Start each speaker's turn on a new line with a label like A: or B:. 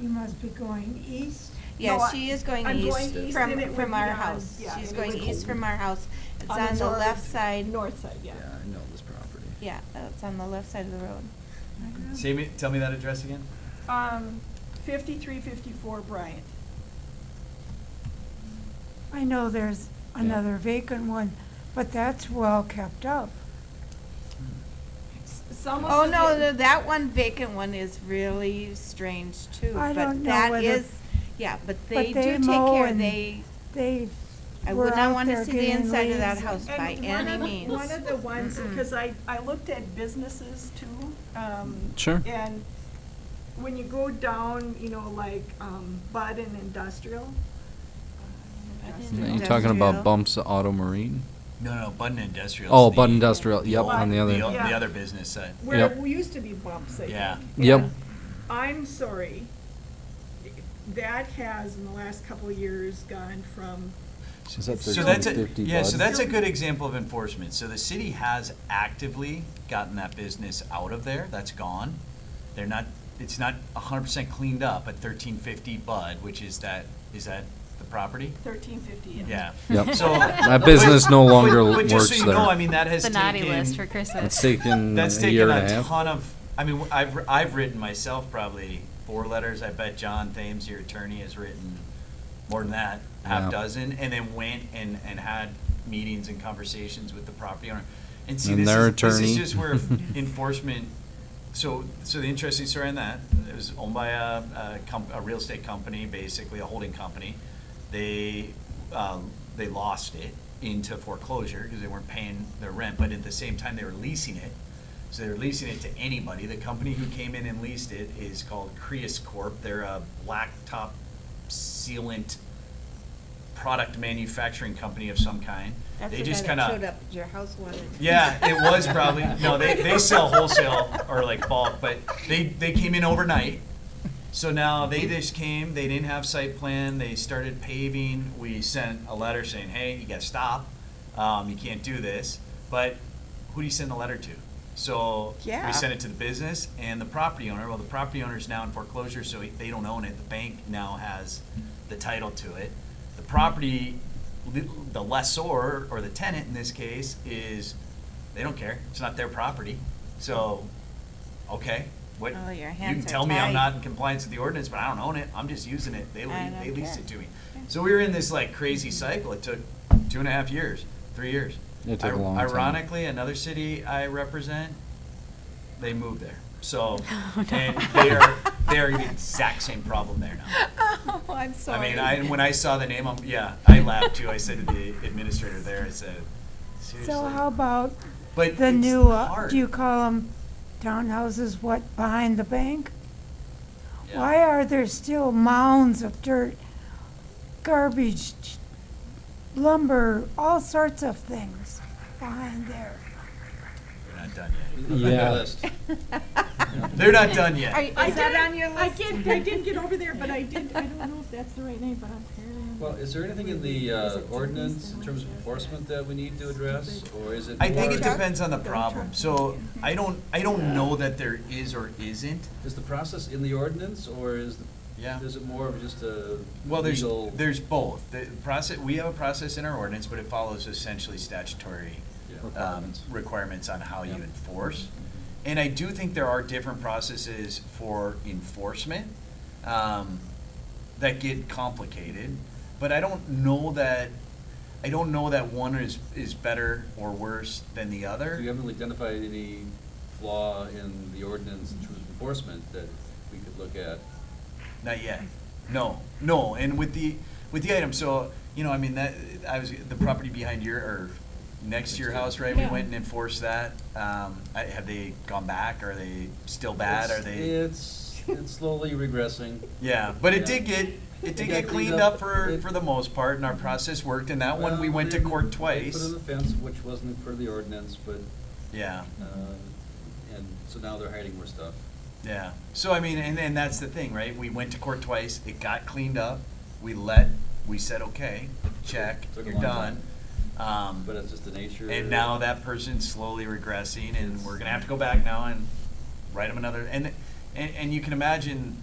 A: you must be going east.
B: Yeah,
C: No, I-
B: she is going
C: I'm
B: east
C: going east and it
B: from,
C: would
B: from
C: be
B: our
C: on-
B: house.
C: yeah,
B: She's
C: it
B: going
C: would-
B: east from our house. It's
C: the
B: on the
C: north-
B: left side.
C: North side, yeah.
D: Yeah, I know this property.
B: Yeah, it's on the left side of the road.
E: Say me, tell me that address again?
C: Um, fifty-three, fifty-four Bryant.
A: I know there's
D: Yeah.
A: another vacant one, but that's well kept up.
C: S- Some of
B: Oh,
C: the-
B: no, th- that one vacant one is really strange too.
A: I don't know
B: But that
A: whether-
B: is, yeah, but they do
A: they
B: take
A: mow
B: care,
A: and
B: they,
A: They
B: I
A: were
B: would
A: out
B: not want
A: there
B: to see the
A: getting
B: inside of that
A: leaves
B: house by
C: And one
B: any
C: of-
B: means.
C: One of the ones,
B: Mm-mm.
C: because I, I looked at businesses too. um,
D: Sure.
C: And when you go down, you know, like, um, Bud and Industrial. uh,
B: I didn't
D: You
C: industrial.
B: know.
D: talking
B: Industrial.
D: about Bumps Auto Marine?
E: No, no, Button Industrial.
D: Oh, Bud Industrial, yep,
C: Well,
D: on the
C: the
D: other,
C: o-
E: The
C: Yeah.
E: other business side.
C: Where
D: Yep.
C: it used to be bumps, I think.
E: Yeah.
D: yep,
C: I'm sorry, that has in the last couple of years gone from,
F: Is that
E: So that's a,
F: 1350
E: yeah, so
F: Bud?
E: that's a good example of enforcement. So the city has actively gotten that business out of there, that's gone. They're not, it's not hundred percent cleaned up at thirteen fifty Bud, which is that, is that the property?
C: thirteen fifty.
E: Yeah.
D: Yep.
E: So.
D: that business no longer
E: But just so
D: works
E: you know, I
D: there.
E: mean, that has
G: the
E: taken.
G: naughty list for Christmas.
D: It's taken
E: That's
D: a
E: taken
D: year and a
E: a
D: half.
E: ton of, I mean, I've, I've written myself probably four letters. I bet John Thames, your attorney, has written more than that, half
D: Yeah.
E: dozen, and then went and, and had meetings and conversations with the property owner. And see,
D: And
E: this
D: their
E: is, this is
D: attorney.
E: just where enforcement, so, so the interesting story on that, it was owned by a, a comp, a real estate company, basically, a holding company. They, um, they lost it into foreclosure because they weren't paying their rent, but at the same time, they were leasing it. So they're leasing it to anybody. The company who came in and leased it is called Creus Corp. They're a blacktop sealant product manufacturing company of some kind.
B: That's
E: They
B: the
E: just
B: guy
E: kind
B: that
E: of
B: Showed up at your house one.
E: yeah, it was probably, no, they, they sell wholesale or like bulk, but they, they came in overnight. So now they just came, they didn't have site plan, they started paving, we sent a letter saying, hey, you gotta stop, um, you can't do this. But who do you send the letter to? So
C: Yeah.
E: we sent it to the business and the property owner, well, the property owner's now in foreclosure, so he- they don't own it, the bank now has the title to it. The property, the the lessor, or the tenant in this case, is, they don't care, it's not their property, so, okay, what?
B: Oh, your
E: You
B: hands
E: can
B: are
E: tell me
B: tied.
E: I'm not in compliance with the ordinance, but I don't own it, I'm just using it, they,
B: I
E: lea-
B: don't
E: they leased
B: care.
E: it to me.
B: Yeah.
E: So we were in this like crazy cycle, it took two and a half years, three years.
D: It took a
E: Ir-
D: long time.
E: Ironically, another city I represent, they moved there, so,
B: Oh,
E: and they are, they are the exact same problem there now.
B: Oh, I'm sorry.
E: I mean, I, and when I saw the name, I'm, yeah, I laughed too. I said to the administrator there, I said, seriously?
A: So how about
E: But
A: the
E: it's
A: new, uh,
E: hard.
A: do you call them townhouses, what, behind the bank?
E: Yeah.
A: Why are there still mounds of dirt, garbage, lumber, all sorts of things behind there?
E: They're not done yet.
D: Yeah.
E: They're not done
B: Are,
E: yet.
B: you- is that on your list?
C: I did, I did get over there, but I did, I don't know if that's the right name, but I'm paranoid.
F: Well, is there anything in the uh, ordinance in terms of enforcement that we need to address, or is it?
E: I think
F: more-
E: it depends on the problem. So I don't, I don't know that there is or isn't.
F: Is the process in the ordinance, or is, the-
E: Yeah.
F: is it more of just a
E: Well, there's,
F: legal?
E: there's both. The process, we have a process in our ordinance, but it follows essentially statutory
F: Yeah.
E: um,
F: Requirements.
E: requirements on how you
F: Yeah.
E: enforce. And I do think there are different processes for enforcement um, that get complicated. But I don't know that, I don't know that one is, is better or worse than the other.
F: So you haven't identified any flaw in the ordinance in terms of enforcement that we could look at?
E: Not yet. No, no. And with the, with the item, so, you know, I mean, that, I was, the property behind your, or next to your house, right? We
C: Yeah.
E: went and enforced that. Um, I- have they gone back? Are they still bad? Are
F: It's-
E: they?
F: It's, it's slowly regressing.
E: Yeah, but it
F: Yeah.
E: did get, it did
F: It got
E: get cleaned up for, for the most part and our process worked. And that one, we
F: Mm-hmm. Well,
E: went to
F: they- they
E: court
F: Put
E: twice.
F: in a fence, which wasn't per the ordinance, but,
E: Yeah.
F: uh, and so now they're hiding more stuff.
E: Yeah. So I mean, and and that's the thing, right? We went to court twice. It got cleaned up. We let. We said, okay, check.
F: Took a
E: You're
F: long
E: done. Um,
F: But it's just the nature.
E: and now that person's slowly regressing, and we're gonna have to go back now and write them another. And and and you can imagine